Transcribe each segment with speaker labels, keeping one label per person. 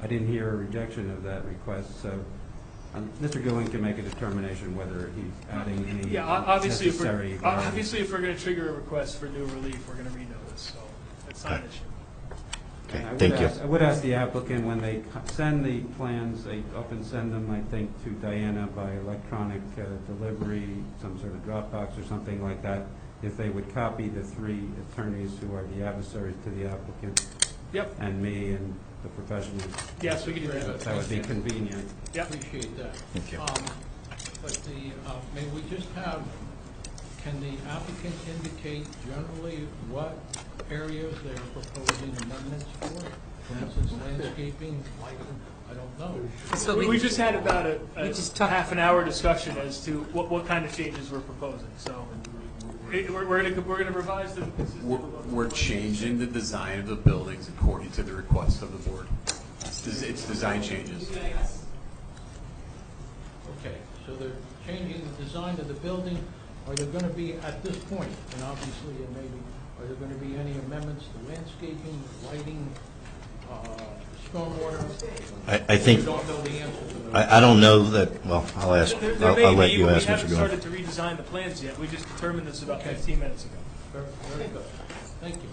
Speaker 1: I didn't hear a rejection of that request, so um, Mr. Gillen can make a determination whether he's adding any
Speaker 2: Yeah, o- obviously, if
Speaker 1: necessary.
Speaker 2: we're, o-
Speaker 1: variety.
Speaker 2: Uh, obviously, if we're gonna trigger a request for new relief, we're gonna renotice, so that's not an
Speaker 3: Okay.
Speaker 2: issue.
Speaker 3: Okay,
Speaker 1: And I would
Speaker 3: thank you.
Speaker 1: ask- I would ask the applicant, when they co- send the plans, they often send them, I think, to Diana by electronic uh, delivery, some sort of Dropbox or something like that, if they would copy the three attorneys who are the adversaries to the applicant
Speaker 2: Yep,
Speaker 1: and me and the professionals.
Speaker 2: yes, we can do that.
Speaker 1: That would be convenient.
Speaker 2: Yep,
Speaker 4: Appreciate that.
Speaker 3: Thank you.
Speaker 4: Um, But the, uh, may we just have, can the applicant indicate generally what areas they are proposing amendments for? For instance, landscaping, lighting, I don't know.
Speaker 5: So
Speaker 2: we
Speaker 5: we,
Speaker 2: we just had about a,
Speaker 5: We
Speaker 2: a
Speaker 5: just talked-
Speaker 2: half an hour discussion as to what, what kind of changes we're proposing, so. it- We're, we're gonna, we're gonna revise the.
Speaker 6: We're we're changing the design of the buildings according to the request of the board. It's des- It's design changes.
Speaker 4: Okay, so they're changing the design of the building. Are there going to be, at this point, and obviously it may be, are there going to be any amendments to landscaping, lighting, uh, stormwater?
Speaker 3: I, I think,
Speaker 4: We don't know the answer to those.
Speaker 3: I, I don't know that, well, I'll ask,
Speaker 2: There- there may
Speaker 3: I'll I'll let
Speaker 2: be,
Speaker 3: you
Speaker 2: but
Speaker 3: ask
Speaker 2: We
Speaker 3: Mr. Gillen.
Speaker 2: haven't started to redesign the plans yet, we just determined this about
Speaker 4: Okay.
Speaker 2: fifteen minutes ago.
Speaker 4: Very very good. Thank you.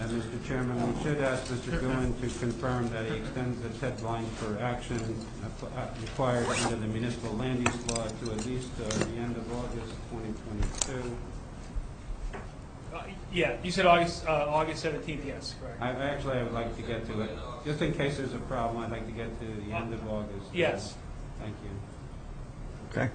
Speaker 1: And Mr. Chairman, we should ask Mr. Gillen to confirm that he extends the deadline for action uh, uh, required under the municipal land use law to at least uh, the end of August 2022.
Speaker 2: Uh, Yeah, you said August, uh, August seventeenth, yes, correct.
Speaker 1: I, I actually, I would like to get to it, just in case there's a problem, I'd like to get to the end of August.
Speaker 2: Yes.
Speaker 1: Thank you.
Speaker 3: Okay.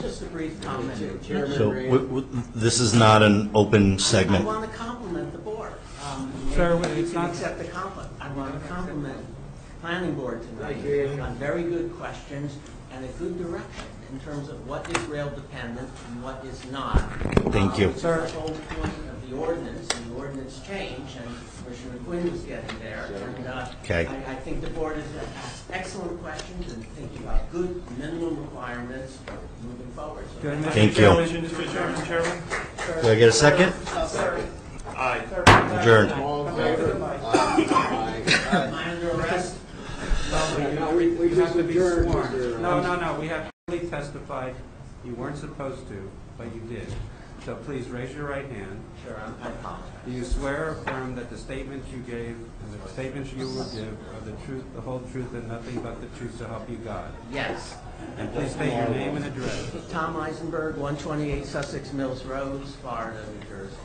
Speaker 7: Just a brief comment,
Speaker 3: So,
Speaker 7: Chairman
Speaker 3: w-
Speaker 7: Ray.
Speaker 3: w- this is not an open
Speaker 7: I
Speaker 3: segment.
Speaker 7: want to compliment the board. Um,
Speaker 1: Sir,
Speaker 7: maybe
Speaker 1: it's
Speaker 7: You can
Speaker 1: not-
Speaker 7: accept the compliment. I want to compliment planning board tonight on very good questions and a good direction in terms of what is rail dependent and what is not.
Speaker 3: Thank
Speaker 7: Uh,
Speaker 3: you.
Speaker 7: Which is the whole point of the ordinance, and the ordinance change, and Commissioner Quinn was getting there. And, uh,
Speaker 3: Okay.
Speaker 7: I, I think the board has asked excellent questions and thinking about good minimum requirements moving forward. So
Speaker 1: Good.
Speaker 7: thank
Speaker 3: Thank you.
Speaker 2: Mr. Chairman?
Speaker 3: Do I get a second? Aye. Adjourned.
Speaker 8: All in favor?
Speaker 7: you. Am I under arrest?
Speaker 8: We
Speaker 1: You have to be sworn. No, no, no, we have fully testified, you weren't supposed to, but you did. So please raise your right hand.
Speaker 7: Sure, I'm- I apologize.
Speaker 1: Do you swear or affirm that the statements you gave and the statements you will give are the truth, the whole truth, and nothing but the truth to help you God?
Speaker 7: Yes.
Speaker 1: And please state your name and address.
Speaker 7: Tom Eisenberg, 128 Sussex Mills Road, Florida, New Jersey.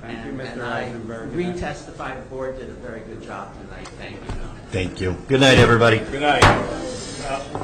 Speaker 1: Thank you,
Speaker 7: And-
Speaker 1: Mr. Eisenberg.
Speaker 7: And I retestified, the board did a very good job tonight, thank you.
Speaker 3: Thank you. Good night, everybody.
Speaker 9: Good night. Uh,